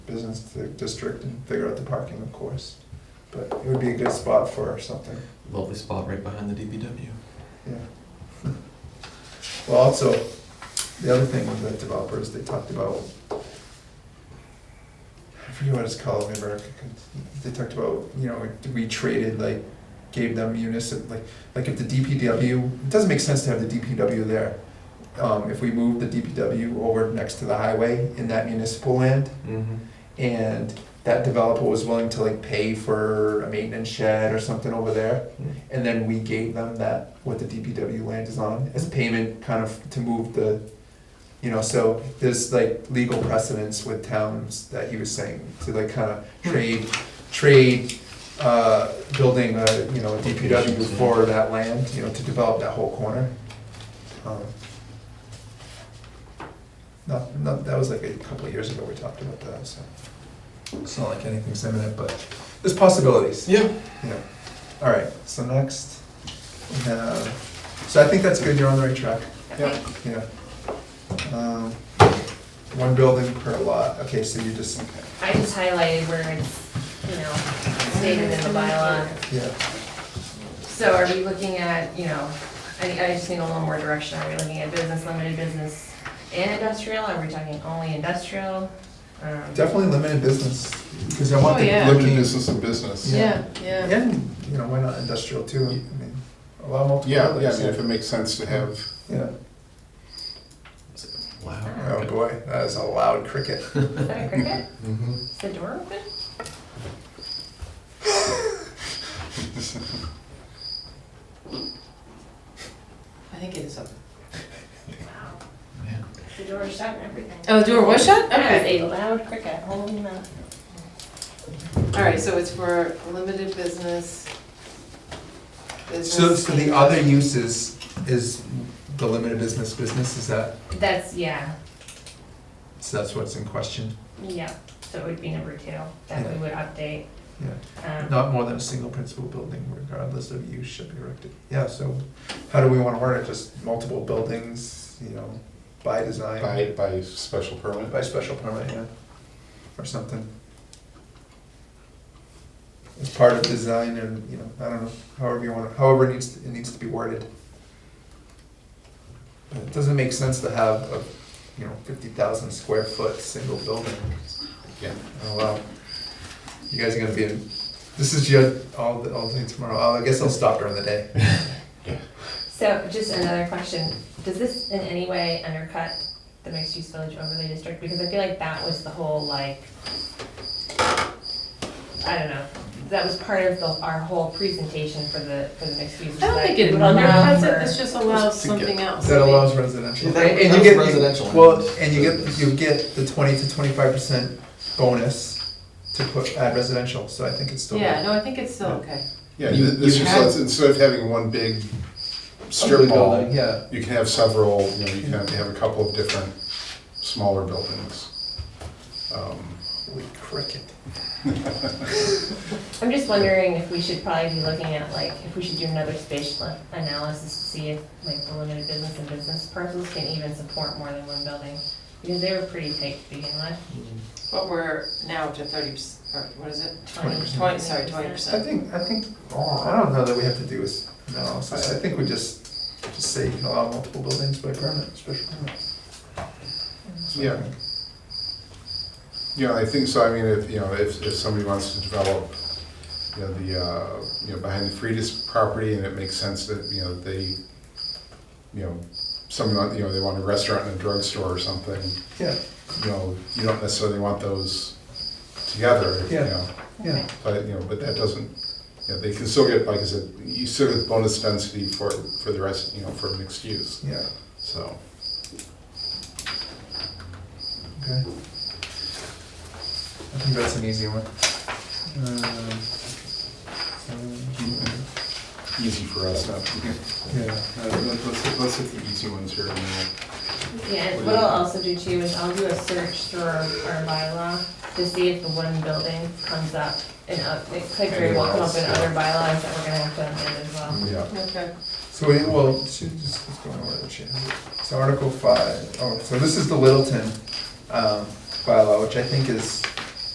business to the district and figure out the parking, of course. But it would be a good spot for something, Lovely spot right behind the DPW. yeah. Well, also, the other thing with the developers, they talked about, I forget what it's called in America, they talked about, you know, we traded, like, gave them municipal, like, like if the DPW, it doesn't make sense to have the DPW there. Um, if we move the DPW over next to the highway in that municipal land, Mm-hmm. and that developer was willing to like pay for a maintenance shed or something over there, and then we gave them that, what the DPW land is on, as payment kind of to move the, you know, so there's like legal precedence with towns that he was saying, to like kind of trade, trade, uh, building a, you know, a DPW for that land, you know, to develop that whole corner. Um, Not, not, that was like a couple of years ago we talked about that, so. It's not like anything's imminent, but there's possibilities. Yeah. Yeah, all right, so next, we have, so I think that's good, you're on the right track. Yeah. Yeah. Um, One building per lot, okay, so you just, I just highlighted where it's, you know, stated in the bylaw. yeah, So are we looking at, you know, I, I just need a little more direction. Are we looking at business, limited business, and industrial? Are we talking only industrial? Um, definitely limited business, because I want Oh, the yeah. looking. Limited business and business. Yeah, yeah. And, you know, why not industrial too, I mean, allow multiple Yeah, yeah, I buildings. mean, if it makes sense to have, Yeah, Wow. oh boy, that is a loud cricket. Is that a cricket? Mhm. Is the door open? I think it is open. Wow. Yeah. The door is shut and everything. Oh, the door was shut? That Okay. is a loud cricket, holy moly. All right, so it's for limited business. So, business so the and- other uses is the limited business business, is that, That's, yeah, so that's what's in question? yeah, so it would be number two, that we would update. Yeah. Um, Not more than a single principal building regardless of use should be erected. Yeah, so how do we wanna word it? Just multiple buildings, you know, by design? by, by special permit. By special permit, yeah, or something. As part of design and, you know, I don't know, however you wanna, however it needs, it needs to be worded. But It doesn't make sense to have a, you know, fifty thousand square foot single building. Yeah. Oh, wow. You guys are gonna be in, this is your, all, all day tomorrow. Oh, I guess I'll stop during the day. So just another question, does this in any way undercut the mixed-use village overlay district? Because I feel like that was the whole like, I don't know, that was part of the, our whole presentation for the, for the mixed use. I don't think it allows allows it, this just allows Just to get- something else. That I mean, allows residential. Yeah, that- And you that's get- residential Well, and and you get, business. you get the twenty to twenty-five percent bonus to put, add residential, so I think it's still. Yeah, no, I think it's still okay. Yeah, You- th- this you just had- lets, instead of having one big strip Building, mall, Yeah, you can have several, you know, you can have a couple of different smaller buildings. Um, holy cricket. I'm just wondering if we should probably be looking at like, if we should do another spatial analysis to see if like the limited business and business parcels can even support more than one building. Because they were pretty tight to begin with. But we're now up to thirty, or what is it? 20%. Twenty, sorry, twenty I percent. think, I think, oh, I don't know that we have to do this analysis, I think we just, just say you can allow multiple buildings by permit, special permit. That's what I Yeah. think. You know, I think so, I mean, if, you know, if, if somebody wants to develop, you know, the, uh, you know, behind the Freitas property, and it makes sense that, you know, they, you know, somebody, want- you know, they want a restaurant and a drugstore or something, Yeah, you know, you don't necessarily want those together, you Yeah. know. yeah, But, you know, but that doesn't, you know, they can still get, like I said, you still get the bonus density for, for the rest, you know, for mixed use, yeah, so. okay. I think that's an easy one. Um, so- Easy for us, not, Yeah, Uh, let- let's, let's hit the easy ones here. and then Yeah, and what I'll also do too is I'll do a search through our, our bylaw to see if the one building comes up and up, it could very well come up in other bylaws that we're gonna have to amend as well. we'll- Yeah. Okay. so we, well, she just, what's going on with it, she has it. So Article five, oh, so this is the Littleton, um, bylaw, which I think is